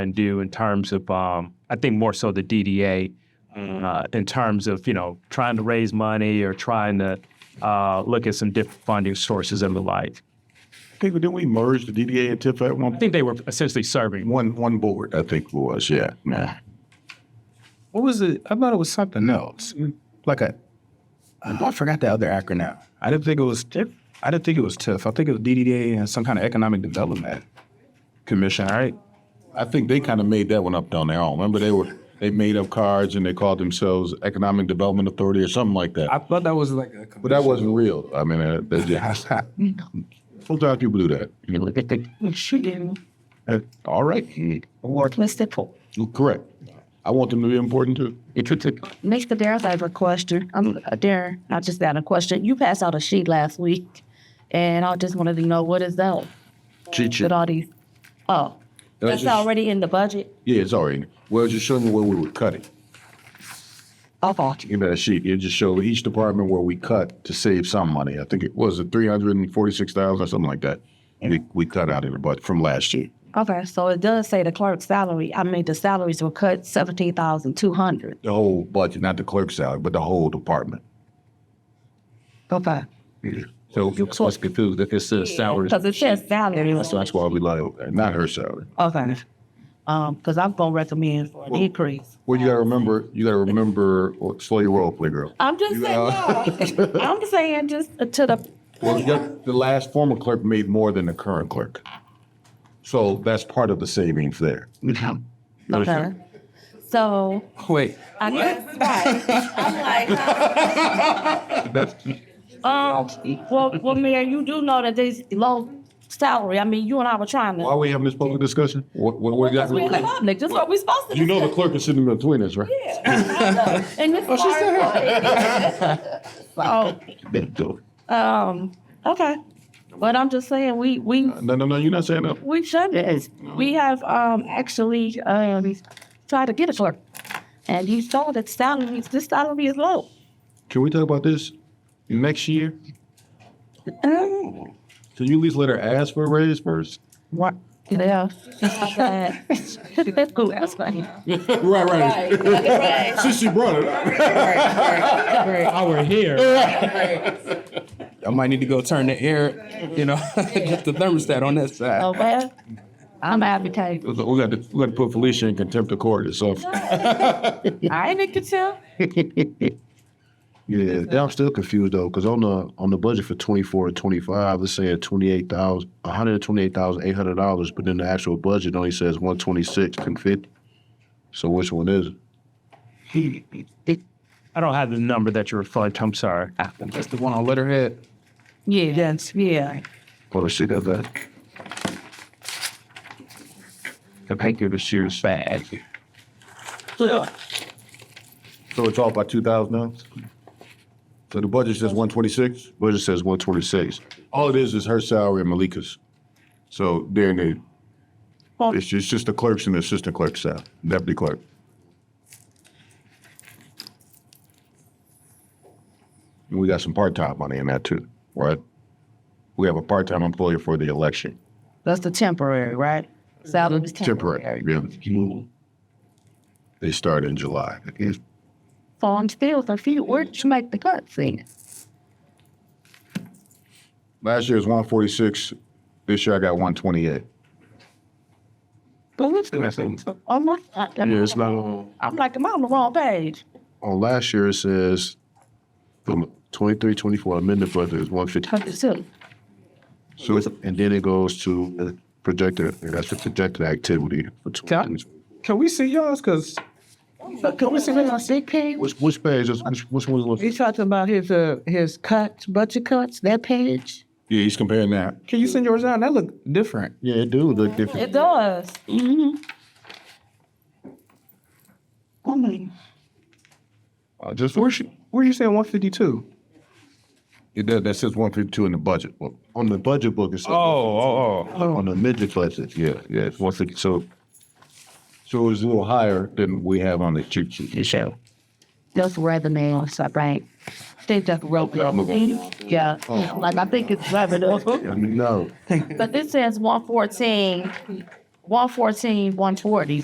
and do in terms of, um, I think more so the DDA, Mm. uh, in terms of, you know, trying to raise money or trying to uh, look at some different funding sources and the like. People, didn't we merge the DDA and TIF at I one, think they were essentially serving. one, one board, I think it was, yeah, nah. What was it? I thought it was something else, like a, I forgot the other acronym. I didn't think it was TIF. I didn't think it was TIF. I think it was DDA and some kind of Economic Development Commission, right? I think they kind of made that one up on their own. Remember, they were they made up cards and they called themselves Economic Development Authority or something like that. I thought that was like a. but that wasn't real. I mean, uh, that's just, sometimes people do that. You know, uh, All right, Listed for. correct. I want them to be important too. Next, Adair, I have a question. I'm Adair. I just got a question. You passed out a sheet last week, and I just wanted to know what is that Cheat sheet. with all these. Oh, that's just- already in the budget. uh, Yeah, it's all right. Well, it's just showing you where we would cut it. Okay. You know, that sheet. It just showed each department where we cut to save some money. I think it was a three hundred and forty-six thousand or something like that. We we cut out of the budget from last year. Okay, so it does say the clerk's salary. I mean, the salaries were cut seventeen thousand two hundred. The whole budget, not the clerk's salary, but the whole department. Okay. So I was confused if it's a salary. Because it says salary. So that's why we like that, not her salary. Okay. Um, because I'm gonna recommend for an increase. Well, you gotta remember, you gotta remember, well, slow your roll, playgirl. I'm just saying, no. I'm saying just to the, Well, you got- the last former clerk made more than the current clerk. So that's part of the savings there. okay. So Wait, I guess, um, right. I'm like, um, well, well, Mayor, you do know that this low salary, I mean, you and I were trying Why are to. we having this public discussion? What, what, what Because we're in the got? public, just what we supposed to. You know do. the clerk is sitting between us, right? And this is So, um, okay. But I'm just saying, we, we, No, no, no, you're not saying that. we should, we have, um, actually, um, tried to get a clerk. And you saw that salaries, this salary is low. Can we talk about this next year? Um. Can you at least let her ask for a raise first? What? Yeah. That's cool, that's funny. Right, right. Since she brought it up. I might need to go turn the air, you know, get the thermostat on that side. Oh, well, I'm advocating. We got to, we got to put Felicia in contempt of court or something. I ain't make it tell. Yeah, yeah, I'm still confused though, because on the on the budget for 24 and 25, it's saying 28,000, 128,800 dollars, but then the actual budget only says 126 and 50. So which one is it? I don't have the number that you're referring to. I'm sorry. That's the one on letterhead. Yeah, that's, yeah. Hold on, see that back. The paper this year is bad. So it's off by two thousand dollars? So the budget says one twenty-six? Budget says 126. All it is is her salary and Malika's. So they're in the, it's just, it's just the clerks and the assistant clerk's salary, deputy clerk. And we got some part-time money in that too, right? We have a part-time employee for the election, That's the temporary, right? Salary's temporary, temporary. yeah. They start in July. So I'm still confused. Where'd you make the cuts in? Last year was one forty-six, this year I got one twenty-eight. But what's I'm like, Yeah, it's not on. Oh, I'm like, I'm on the wrong page. On last year, it says from 23, 24 amended budget is 150. Cut this out. So it's- and then it goes to the projected. That's the projected activity for 20. Can we see yours? Cause Can we see that on sick page? Which which page? is- Which which one? was- You talking about his, uh, his cuts, budget cuts, that page? Yeah, he's comparing that. can you send yours down? That look different. Yeah, it do look different. It does. Uh, just Where's you, where you saying one fifty-two? It does. That says one fifty-two in the budget. Well, on the budget book. It's oh, oh. on the midget budget. Yeah, yeah. It's one fifty. So so it was a little higher than we have on the cheat sheet. That's rather man, so right. They just wrote it. Yeah, Oh. like I think it's revenue. no, But this says one fourteen, one fourteen, one forty.